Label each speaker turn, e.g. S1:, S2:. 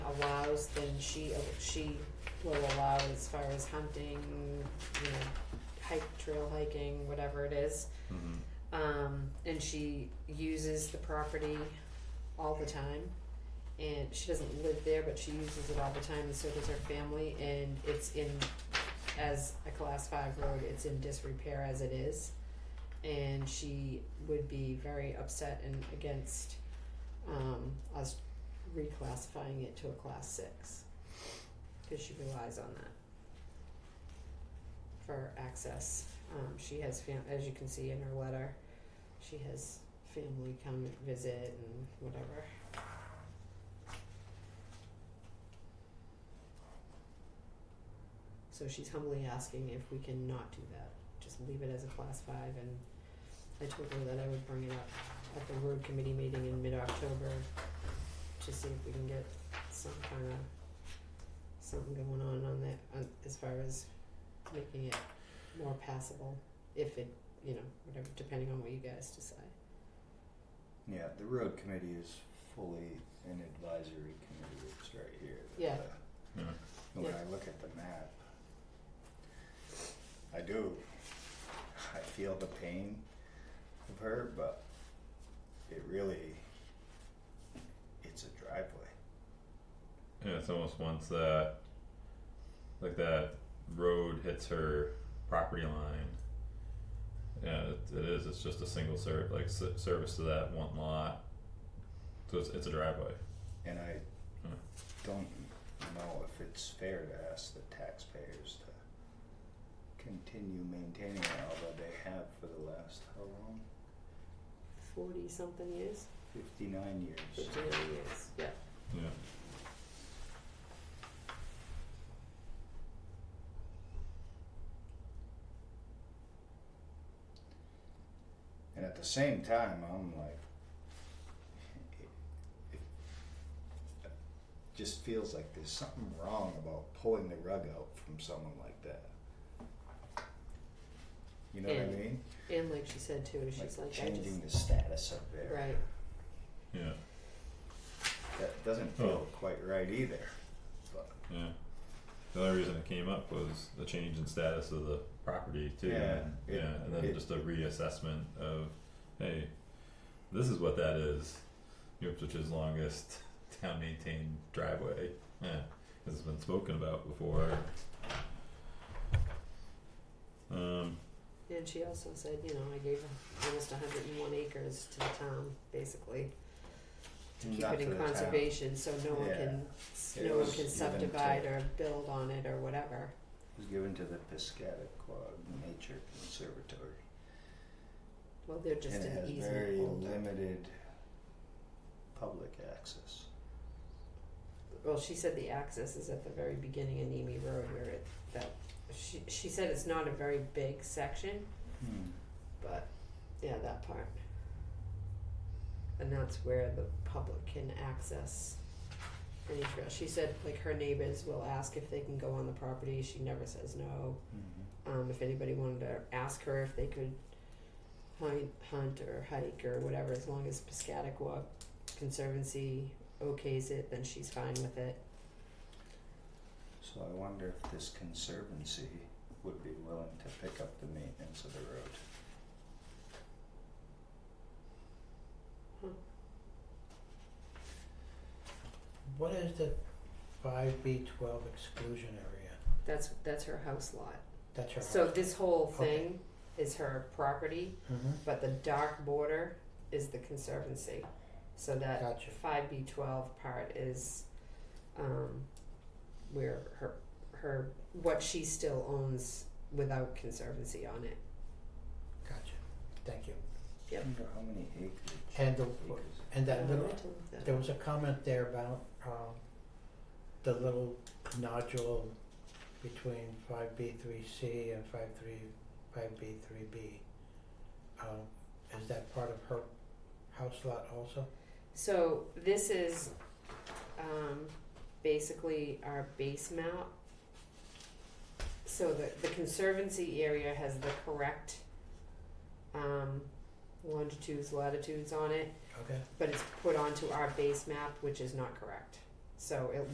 S1: allows, then she, she will allow as far as hunting, you know, hike, trail hiking, whatever it is.
S2: Mm-hmm.
S3: Mhm.
S1: Um, and she uses the property all the time. And she doesn't live there, but she uses it all the time, and so does her family, and it's in, as a class five road, it's in disrepair as it is. And she would be very upset and against, um, us reclassifying it to a class six. Cause she relies on that for access. Um, she has fam- as you can see in her letter, she has family come visit and whatever. So she's humbly asking if we can not do that, just leave it as a class five and I told her that I would bring it up at the road committee meeting in mid-October to see if we can get some kind of something going on on that, on, as far as making it more passable if it, you know, whatever, depending on what you guys decide.
S3: Yeah, the road committee is fully an advisory committee, it's right here.
S1: Yeah.
S3: The-
S2: Mhm.
S3: When
S1: Yeah.
S3: I look at the map, I do, I feel the pain of her, but it really, it's a driveway.
S2: Yeah, it's almost once that, like that road hits her property line. Yeah, it, it is. It's just a single ser- like s- service to that one lot. So it's, it's a driveway.
S3: And I
S2: Hmm.
S3: don't know if it's fair to ask the taxpayers to continue maintaining it, although they have for the last, how long?
S1: Forty something years,
S3: Fifty-nine years.
S1: fifty nine years, yeah.
S2: Yeah.
S3: And at the same time, I'm like, it, it just feels like there's something wrong about pulling the rug out from someone like that. You know what I
S1: Yeah.
S3: mean?
S1: And like she said too, she's like, I just,
S3: changing the status up there.
S1: right,
S2: Yeah.
S3: That doesn't feel quite right either. But
S2: Yeah. The only reason it came up was the change in status of the property too.
S3: Yeah,
S2: and-
S3: it-
S2: yeah, and then
S3: it-
S2: just a reassessment of, hey, this is what that is. Ipswich's longest town maintained driveway. Yeah, this has been spoken about before. Um,
S1: and she also said, you know, I gave almost hundred and one acres to the town, basically. To keep
S3: Mm, Not
S1: it
S3: to
S1: in
S3: the town.
S1: conservation, so no one
S3: Yeah.
S1: can,
S3: It
S1: no one
S3: was
S1: can
S3: given to-
S1: subdivide or build on it or whatever,
S3: it was given to the Piscataquag Nature Conservatory.
S1: well, they're just
S3: and it
S1: an
S3: has
S1: easement
S3: very
S1: holder.
S3: limited public access.
S1: Well, she said the access is at the very beginning of Nemi Road where it, that, she, she said it's not a very big section, but, yeah, that part. And that's where the public can access any trail. She said, like, her neighbors will ask if they can go on the property, she never says no. Um, if anybody wanted to ask her if they could hunt, hunt or hike or whatever, as long as Piscataqua Conservancy okays it, then she's fine with it.
S3: So I wonder if this conservancy would be willing to pick up the maintenance of the road.
S4: What is the five B twelve exclusion area?
S1: That's, that's her house lot.
S4: That's your house.
S1: So this whole
S4: Okay.
S1: thing is her property,
S4: Mhm.
S1: but the dark border is the conservancy. So that
S4: Gotcha.
S1: five B twelve part is, um, where her, her, what she still owns without conservancy on it.
S4: Gotcha. Thank you.
S3: I wonder how many acres.
S4: And the,
S3: acres.
S4: and that
S1: Um,
S4: little, there was a comment there about, um, the little nodule between five B three C and five three, five B three B. Um, is that part of her house lot also?
S1: So this is, um, basically our base map. So the, the conservancy area has the correct, um, longitudes, latitudes on it,
S4: Okay.
S1: but it's put onto our base map, which is not correct. So it